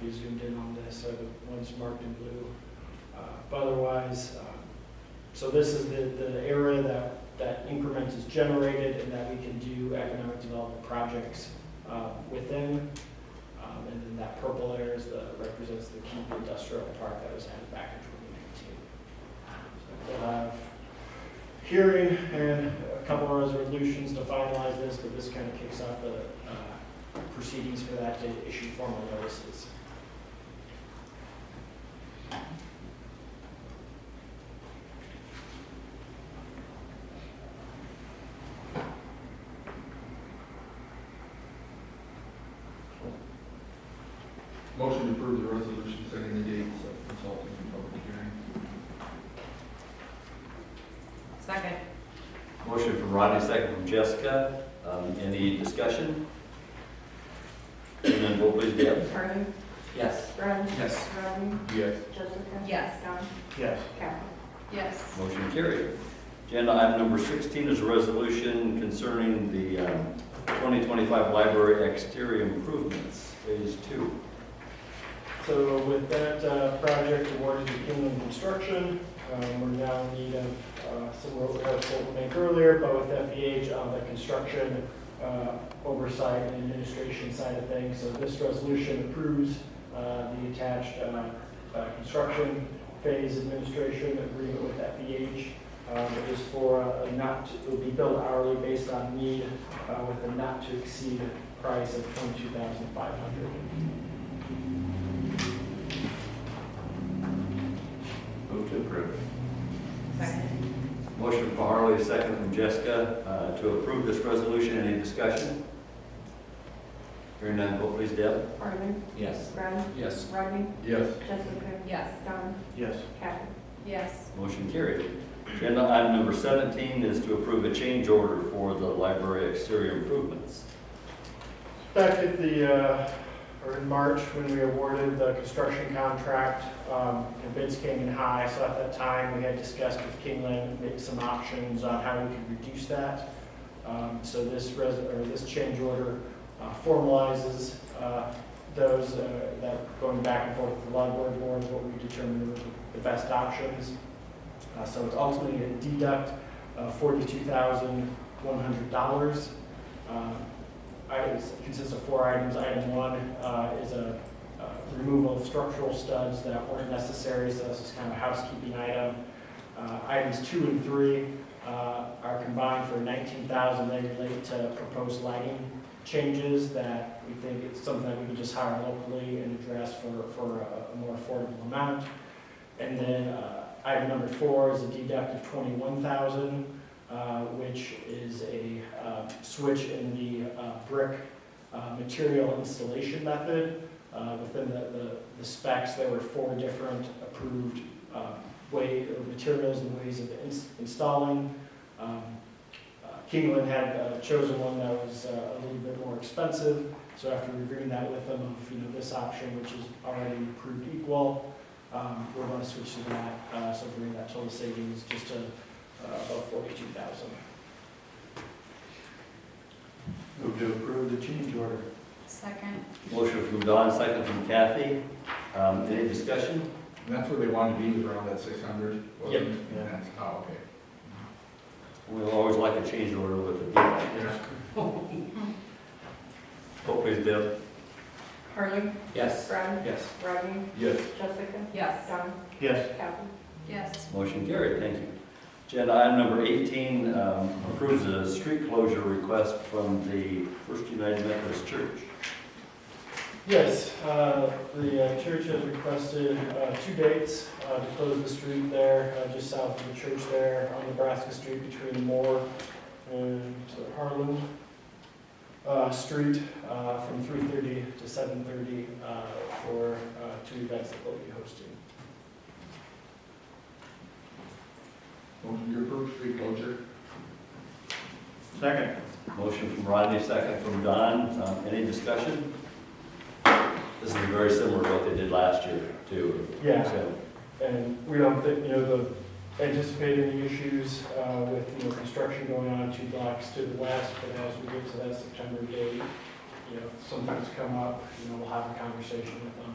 be zoomed in on this, so one's marked in blue. Uh, But otherwise, um, so this is the, the area that, that increment is generated and that we can do economic development projects uh, within. Um, And then that purple area is the, represents the Keep Industrial Park that was added back in 2019. So We'll have hearing and a couple of resolutions to finalize this, but this kind of kicks off the uh, proceedings for that to issue formal notices. Motion to approve the resolution setting the date of consulting and public hearing. Second. Motion from Rodney, second from Jessica. Um, Any discussion? And then vote please, Deb. Harley, Yes. Brad, Yes. Rodney, Yes. Jessica. Yes. Don, Yes. Captain. Yes. Motion carried. Agenda item number 16 is a resolution concerning the um, 2025 library exterior improvements, phase two. So with that uh, project awarded to Kingland Construction, um, we're now in need of uh, some road cuts that we make earlier, but with FEH on uh, the construction uh, oversight and administration side of things. So this resolution approves uh, the attached uh, uh, construction phase administration agreement with FEH. Um, It is for a not, it will be billed hourly based on need uh, with a not to exceed price of 22500 Move to approve. Second. Motion from Harley, second from Jessica, uh, to approve this resolution. Any discussion? Hearing none, vote please, Deb. Harley, Yes. Brad, Yes. Rodney, Yes. Jessica. Yes. Don, Yes. Captain. Yes. Motion carried. Agenda item number 17 is to approve a change order for the library exterior improvements. Back at the, uh, or in March, when we awarded the construction contract, um, and bids came in high, so at that time, we had discussed with Kingland, made some options on how we could reduce that. Um, So this res, or this change order uh, formalizes uh, those, uh, that going back and forth with the library board, what we determined were the best options. Uh, So it's ultimately a deduct of forty-two thousand, one hundred dollars. Um, Items consists of four items. Item one uh, is a uh, removal of structural studs that weren't necessary, so this is kind of a housekeeping item. Uh, Items two and three uh, are combined for nineteen thousand, they relate to proposed lighting changes that we think it's something that we can just hire locally and address for, for a- a more affordable amount. And then uh, item number four is a deduct of twenty-one thousand uh, which is a uh, switch in the uh, brick uh, material installation method. Uh, Within the- the the specs, there were four different approved uh, way, or materials and ways of ins- installing. Um, uh, Kingland had uh, chosen one that was uh, a little bit more expensive, so after reviewing that with them, of, you know, this option, which is already approved equal, um, we're going to switch to that, Uh, so bring that total savings just to uh, about forty-two thousand. Move to approve the change order. Second. Motion from Don, second from Kathy. Um, Any discussion? And that's where they wanted to be, was around that six hundred? Yep. And that's, oh, okay. We always like a change order with a deal. Vote please, Deb. Harley, Yes. Brad, Yes. Rodney, Yes. Jessica. Yes. Don, Yes. Captain. Yes. Motion carried, thank you. Agenda item number 18 um, approves a street closure request from the First United Methodist Church. Yes, uh, the uh, church has requested uh, two dates uh, to close the street there, uh, just south of the church there on Nebraska Street between Moore and Harlan uh, Street uh, from three thirty to seven thirty for uh, two events that they'll be hosting. Motion to approve street closure? Second. Motion from Rodney, second from Don. Um, Any discussion? This is very similar to what they did last year, too. Yeah. So, And we don't think, you know, the, anticipate any issues uh, with, you know, construction going on two blocks to the west, but as we get to that September date, you know, if something's come up, you know, we'll have a conversation with them.